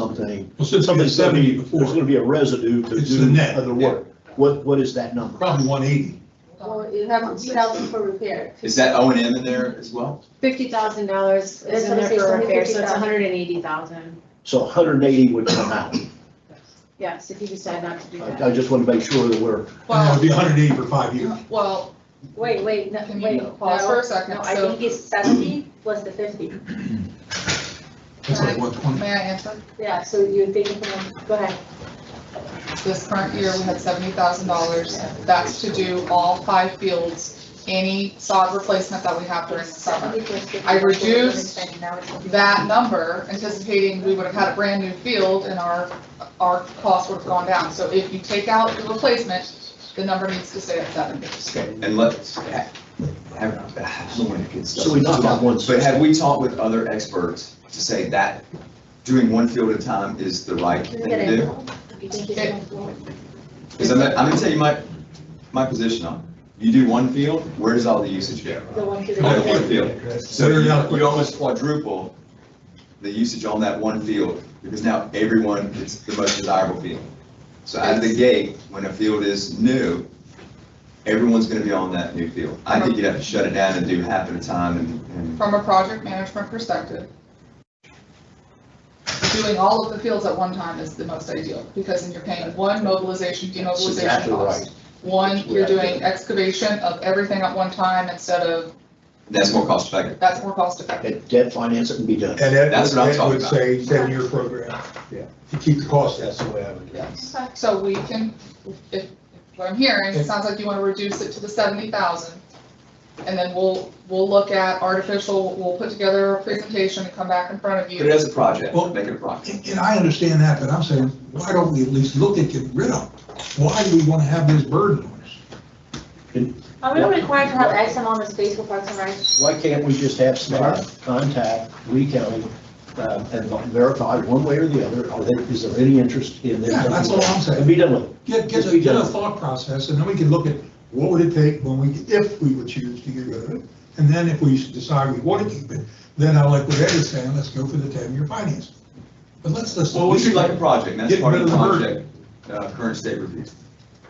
something. Well, since we Something did seventy There's before, gonna be a residue to It's the do net, other work. What, what is that number? probably one eighty. Well, you have two thousand for repair. Is that O and M in there as well? Fifty thousand dollars That's is what in I'm there saying, for only repair, so it's 50,000. hundred and eighty thousand. So hundred and eighty would come out. Yes, if you decide not to do I, I that. just want to make sure that we're, And it would Well, be hundred eighty for five years. well, Wait, wait, no, can wait, you pause for Paul. a No, second? I So, think it's seventy plus the fifty. It's like one twenty. may I answer? Yeah, so you're thinking, from- go ahead. This current year, we had seventy thousand dollars. That's to do all five fields, any sod replacement that we have during the summer. 70 plus 50. I reduced Now it's gonna be- That number, anticipating we would have had a brand new field and our, our cost would have gone down. So if you take out the replacement, the number needs to stay at seventy. And let's, ha- have, I don't wanna get stuff. so we knocked out one. But have we talked with other experts to say that doing one field at a time is the right You're thing gonna- to do? You think you're gonna go- Because I'm, I'm gonna tell you my, my position on it. You do one field, where does all the usage go? the one to the- You do one field. So Clear it out. you, you almost quadruple the usage on that one field, because now everyone, it's the most desirable field. So out of the gate, when a field is new, everyone's gonna be on that new field. I think you'd have to shut it down and do half at a time and, and From a project management perspective, doing all of the fields at one time is the most ideal, because then you're paying one mobilization, That's demobilization exactly right. cost. One, you're doing excavation of everything at one time instead of, that's more cost effective. that's more cost effective. That debt finance it and be done. And Ed That's what I'm Ed talking would about. say, seven-year program. Yeah. To keep the cost down. That's the way I would. Yes. So we can, if, if what I'm hearing, it sounds like you want to reduce it to the seventy thousand. And then we'll, we'll look at artificial, we'll put together a presentation and come back in front of Put it you. as a project, Well- make it a project. And and I understand that, but I'm saying, why don't we at least look at getting rid of? them? Why do we wanna have this burden on us? Are we required to have X amount of space for parks and rec? Why can't we just have staff contact Lee County um, and verify one way or the other, are there, is there any interest in this? Yeah, that's all I'm saying. And be done with it. Get, get a, get a thought process, and then we can look at what would it take when we, if we would choose to get rid of it. And then if we decide we want to keep it, then I like what Ed is saying, let's go for the ten-year finance. But let's, let's. Well, we should like a project, and that's Get part rid of the of the burden. project, uh, current state review.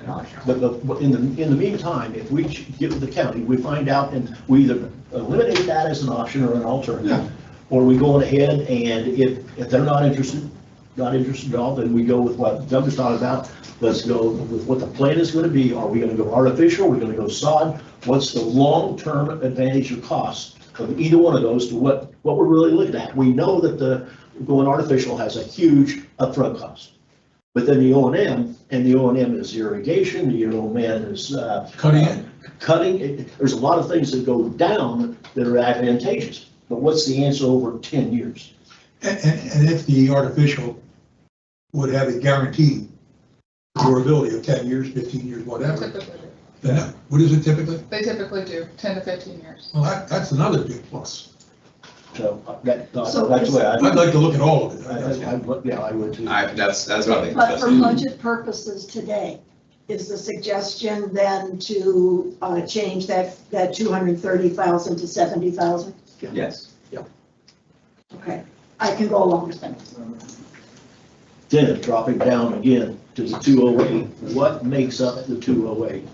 And I'll- But, but but in the, in the meantime, if we ch- get with the county, we find out and we either eliminate that as an option or an Yeah. alternative. Or we go on ahead and if, if they're not interested, not interested at all, then we go with what Doug was talking about. Let's go with what the plan is gonna be. Are we gonna go artificial? Are we gonna go sod? What's the long-term advantage or cost of either one of those to what, what we're really looking at? We know that the, going artificial has a huge upfront cost. But then the O and M, and the O and M is irrigation, the O and M is, uh. Cutting it. Cutting, it- there's a lot of things that go down that are advantageous, but what's the answer over ten years? And, and, and if the artificial would have a guaranteed durability of ten years, fifteen years, whatever, Typically do. then what is it typically? They typically do, ten to fifteen years. Well, that, that's another big plus. So uh, that, that's So the way I, I'd like to look at all of it. I, I- I, yeah, I would too. I, that's, that's what I think. But for budget purposes today, is the suggestion then to uh, change that, that 230,000 to 70,000? Yes. Okay, I can go along with that. Then dropping down again to the two oh eight, what makes up the two oh eight?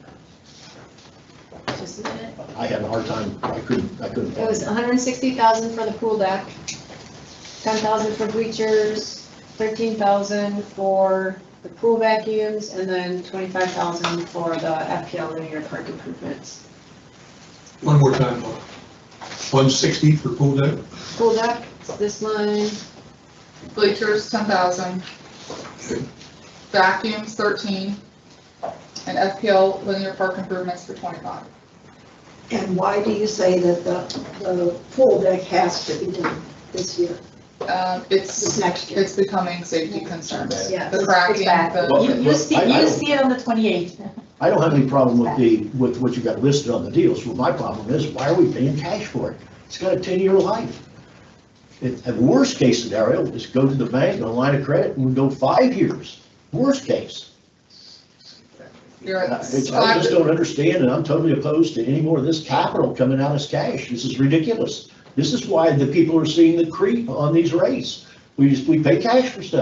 Just a minute. I had a hard time, I couldn't, I couldn't. It was hundred and sixty thousand for the pool deck, ten thousand for bleachers, thirteen thousand for the pool vacuums, and then twenty-five thousand for the FPL linear park improvements. One more time, one sixty for pool deck, Pool deck, this line, Bleachers, ten thousand. Vacuums, thirteen. And FPL linear park improvements for twenty-five. And why do you say that the, the pool deck has to be done this year, Um, this it's, next year? it's becoming safety concerns. yeah. The cracking, bad. the, Well- You, you see, I- I- you see it on the 28th. I don't have any problem with the, with what you got listed on the deals, Well, my problem is, why are we paying cash for it? It's got a ten-year life. It, the worst case scenario is go to the bank, and a line of credit, and we go five years, worst case. you're I I at just don't understand, and I'm totally opposed to any more of this capital coming out as cash, this is ridiculous. This is why the people are seeing the creep on these rates. We- We just, we pay cash for stuff.